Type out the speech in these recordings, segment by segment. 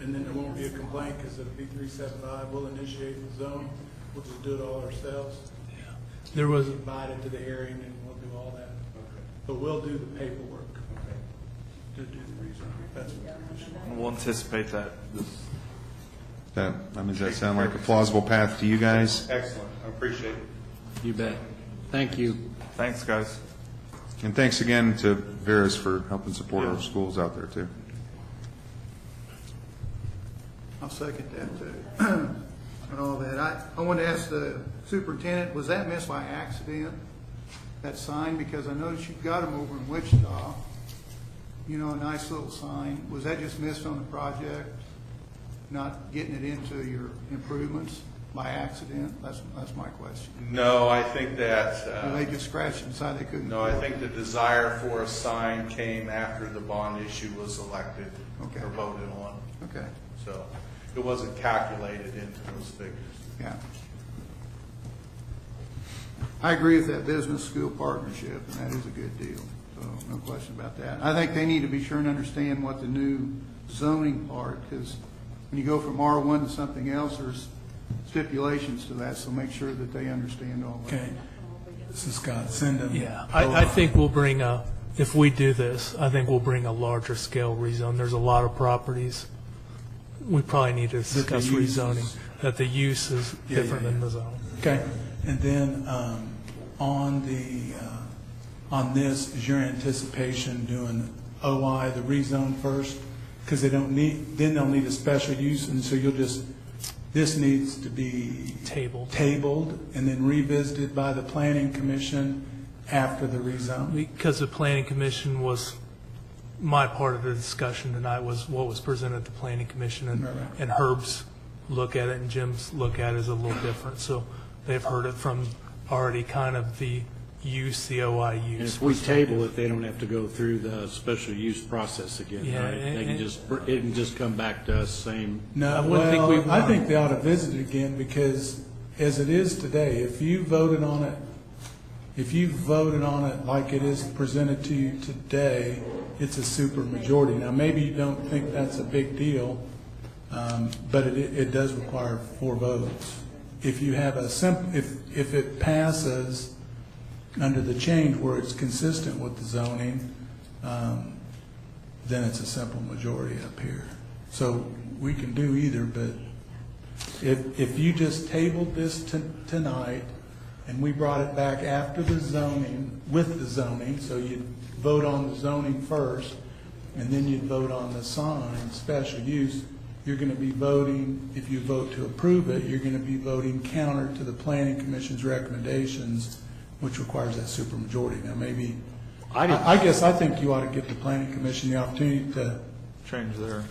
and then there won't be a complaint because it'll be three seven five, we'll initiate the zone, we'll just do it all ourselves. There was, Invite it to the hearing and we'll do all that. But we'll do the paperwork to do the rezon. That's what the issue We'll anticipate that. That, I mean, does that sound like a plausible path to you guys? Excellent, I appreciate it. you bet. Thank you. Thanks, guys. And thanks again to Veris for helping support our schools out there, too. I'll second that, too, and all that. I, I wanted to ask the superintendent, was that missed by accident, that sign? Because I noticed you've got them over in Wichita, you know, a nice little sign. Was that just missed on the project, not getting it into your improvements by accident? That's, that's my question. No, I think that, Or uh, they just scratched inside, they couldn't? no, I think the desire for a sign came after the bond issue was elected Okay. or voted on. Okay, So it wasn't calculated into those figures. yeah. I agree with that business-school partnership, and that is a good deal, so no question about that. I think they need to be sure and understand what the new zoning part, because when you go from R1 to something else, there's stipulations to that, so make sure that they understand all that. Okay. This is Scott, send them. Yeah, I, I think we'll bring a, if we do this, I think we'll bring a larger scale rezone. There's a lot of properties. We probably need to discuss use is- rezoning, that the use is Yeah, yeah, different than the zone. Okay, and then, um, on the, uh, on this, is your anticipation doing OI, the rezone first? Because they don't need, then they'll need a special use, and so you'll just, this needs to be. Tabled. Tabled, and then revisited by the planning commission after the rezone? Because the planning commission was, my part of the discussion tonight was what was presented at the planning commission and, Right, right. and Herb's look at it and Jim's look at it is a little different. So they've heard it from already kind of the use, the OI And use. if we table it, they don't have to go through the special use process again, Yeah, right? They and- can just, br- it can just come back to us, same, I No, wouldn't think well, we I want- think they ought to visit it again, because as it is today, if you voted on it, if you voted on it like it is presented to you today, it's a super majority. Now, maybe you don't think that's a big deal, um, but it, it does require four votes. If you have a simp, if, if it passes under the change where it's consistent with the zoning, um, then it's a simple majority up here. So we can do either, but if, if you just tabled this to- tonight, and we brought it back after the zoning, with the zoning, so you'd vote on the zoning first, and then you'd vote on the sign, special use, you're gonna be voting, if you vote to approve it, you're gonna be voting counter to the planning commission's recommendations, which requires that supermajority. Now, maybe, I didn't- I I guess I think you ought to give the planning commission the opportunity to Change there.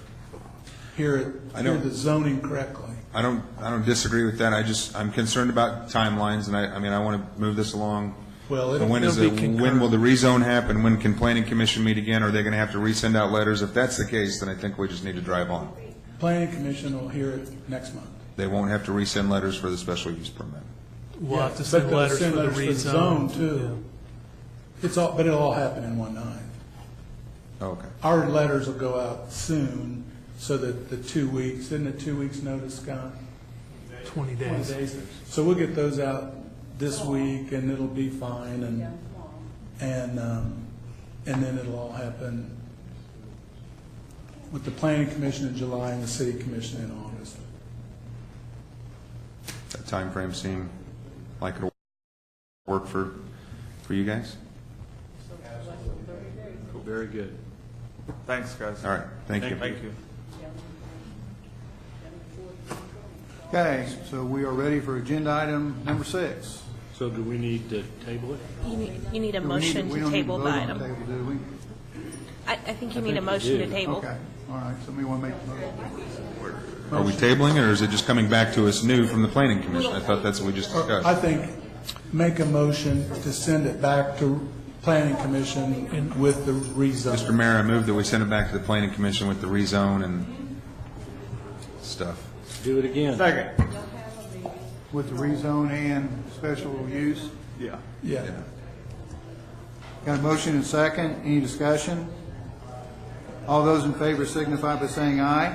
hear it, I hear know. the zoning correctly. I don't, I don't disagree with that, I just, I'm concerned about timelines, and I, I mean, I want to move this along. Well, it'll- And when is it'll the- be When concurrent. will the rezone happen, when can planning commission meet again, are they going to have to resend out letters? If that's the case, then I think we just need to drive on. Planning commission will hear it next month. They won't have to resend letters for the special use permit. We'll have to But send they'll letters for send the letters rezone. zone, too. It's all, but it'll all happen in one night. Oh, Okay. Our letters will go out soon, so that the two weeks, isn't it two weeks notice, Scott? Twenty 20 days. days. So we'll get those out this week, and it'll be fine, and, and, um, and then it'll all happen with the planning commission in July and the city commission in August. That time frame seem like it'll work for, for you guys? very good. Thanks, guys. All right, thank you. Thank you. Okay, so we are ready for agenda item number six. So do we need to table it? You need, you need a Do we need motion we to don't need table the vote on item. table, do we? I, I think you need a think we motion to do. table. Okay, all right, somebody want to make the motion? Are we tabling it, or is it just coming back to us new from the planning commission? I thought that's what we just I discussed. think, make a motion to send it back to planning commission with the Mr. rezone. Mayor, I move that we send it back to the planning commission with the rezone and stuff. Do it again. Second. With the rezone and special use? Yeah. Yeah. Got a motion and second, any discussion? All those in favor signify by saying aye.